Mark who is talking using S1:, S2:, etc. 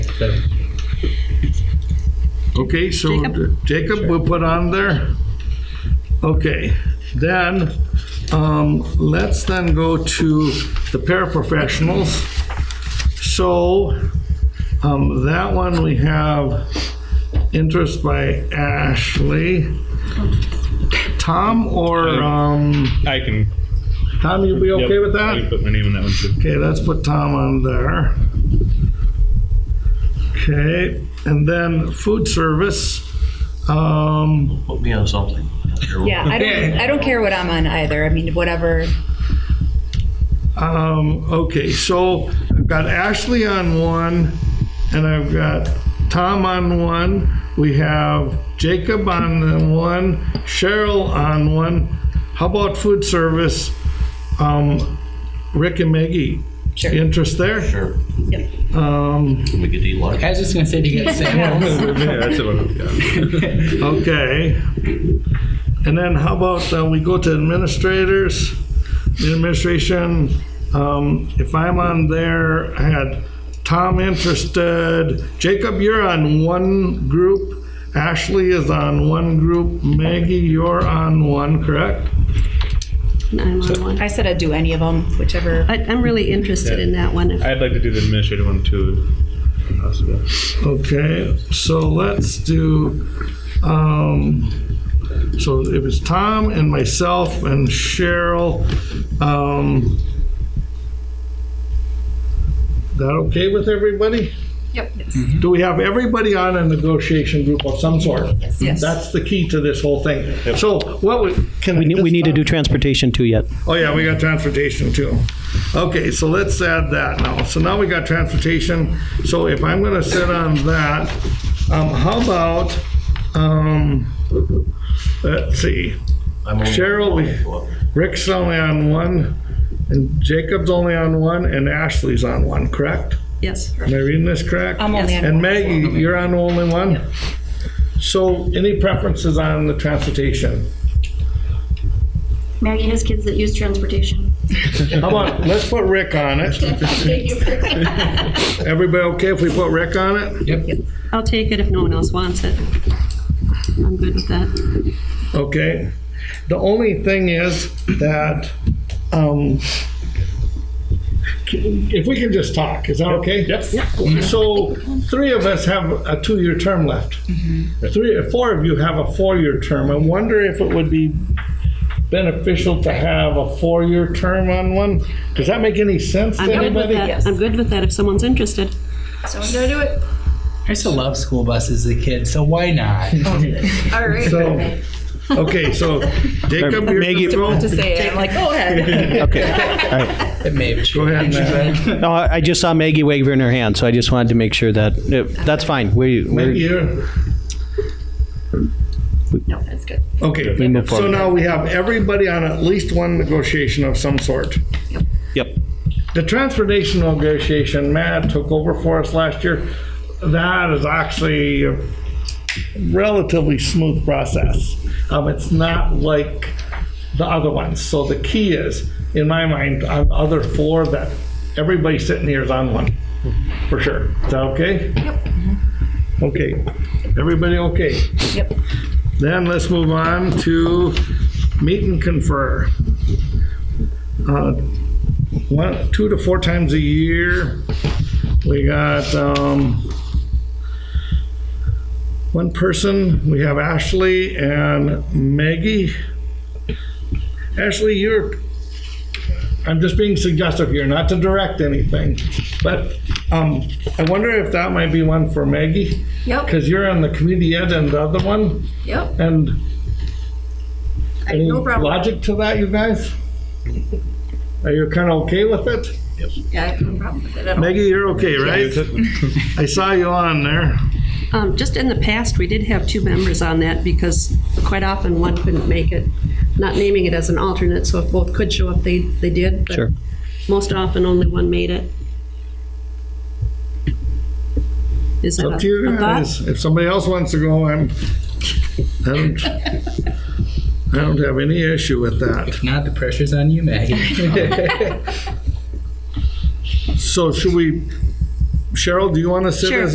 S1: seven.
S2: Okay, so Jacob, we'll put on there. Okay, then, um, let's then go to the paraprofessionals. So, um, that one we have interest by Ashley. Tom or, um,
S1: I can.
S2: Tom, you be okay
S1: yep,
S2: with
S1: I
S2: that?
S1: can put my name in that one too.
S2: Okay, let's put Tom on there. Okay, and then food service. Um,
S3: Put me on something.
S4: Yeah, I don't, I don't care what I'm on either. I mean, whatever.
S2: um, okay, so I've got Ashley on one, and I've got Tom on one. We have Jacob on the one, Cheryl on one. How about food service? Um, Rick and Maggie,
S4: Sure.
S2: interest there?
S3: Sure.
S4: Yep.
S2: Um,
S3: We could eat lunch.
S5: I was just gonna say, do you get sick?
S1: yeah, that's the one.
S2: Okay. And then how about uh, we go to administrators, the administration, um, if I'm on there, I had Tom interested, Jacob, you're on one group, Ashley is on one group, Maggie, you're on one, correct?
S6: I'm on one.
S4: I said I'd do any of them, whichever.
S6: I- I'm really interested in that one. If-
S1: I'd like to do the administrative one too. if possible.
S2: Okay, so let's do, um, so if it's Tom and myself and Cheryl, um, that okay with everybody?
S4: Yep. Yes.
S2: Do we have everybody on a negotiation group of some sort?
S4: Yes.
S2: That's the key to this whole thing. So what we, can
S7: We need, we need to
S2: do.
S7: do transportation too yet.
S2: Oh, yeah, we got transportation too. Okay, so let's add that now. So now we got transportation. So if I'm gonna sit on that, um, how about, um, let's see,
S3: I'm only-
S2: Cheryl, we- Rick's only on one, and Jacob's only on one, and Ashley's on one, correct?
S6: Yes.
S2: Am I reading this correct?
S4: I'm only on
S2: And
S4: one as
S2: Maggie, you're on only one? So any preferences on the transportation?
S8: Maggie has kids that use transportation.
S2: How about, let's put Rick on it. Everybody okay if we put Rick on it?
S6: I'll take it if no one else wants it. I'm good with that.
S2: Okay. The only thing is that, um, if we can just talk, is that okay? Yep. So three of us have a two-year term left. Three, four of you have a four-year term. I wonder if it would be beneficial to have a four-year term on one? Does that make any sense to
S6: I'm good with
S2: anybody?
S6: that. I'm good with that if someone's interested.
S9: So I'm gonna do it.
S5: I used to love school buses as a kid, so why not?
S9: All right.
S2: So, okay, so Jacob, you're
S7: Maggie-
S2: control.
S4: To say it, I'm like, go ahead.
S7: Okay. All right.
S5: Maybe.
S2: Go ahead, Matt.
S7: No, I I just saw Maggie waving her hand, so I just wanted to make sure that, uh, that's fine. We, we
S2: Here.
S4: No, that's good.
S2: Okay,
S7: We move
S2: so
S7: forward.
S2: now we have everybody on at least one negotiation of some sort.
S7: yep.
S2: The transportation negotiation, Matt took over for us last year. That is actually a relatively smooth process. Um, it's not like the other ones. So the key is, in my mind, on the other four, that everybody sitting here is on one, for sure. Is that okay? Yep. Okay, everybody okay?
S4: Yep.
S2: Then let's move on to meet and confer. Uh, One, two to four times a year, we got, um, one person, we have Ashley and Maggie. Ashley, you're, I'm just being suggestive here, not to direct anything, but, um, I wonder if that might be one for Maggie?
S9: Yep.
S2: Because you're on the community ed and the other one,
S9: Yep.
S2: and
S9: I,
S2: any
S9: no problem.
S2: logic to that, you guys? Are you kind of okay with it?
S9: Yeah, I have no problem with it at all.
S2: Maggie, you're okay, right? I saw you on there.
S6: Um, Just in the past, we did have two members on that because quite often one couldn't make it. Not naming it as an alternate, so if both could show up, they, they did. but
S7: Sure.
S6: Most often, only one made it. Is that
S2: Up to
S6: a
S2: you
S6: a thought?
S2: guys. If somebody else wants to go, I'm, I don't, I don't have any issue with that.
S5: If not, the pressure's on you, Maggie.
S2: So should we, Cheryl, do you want to sit
S6: Sure.
S2: as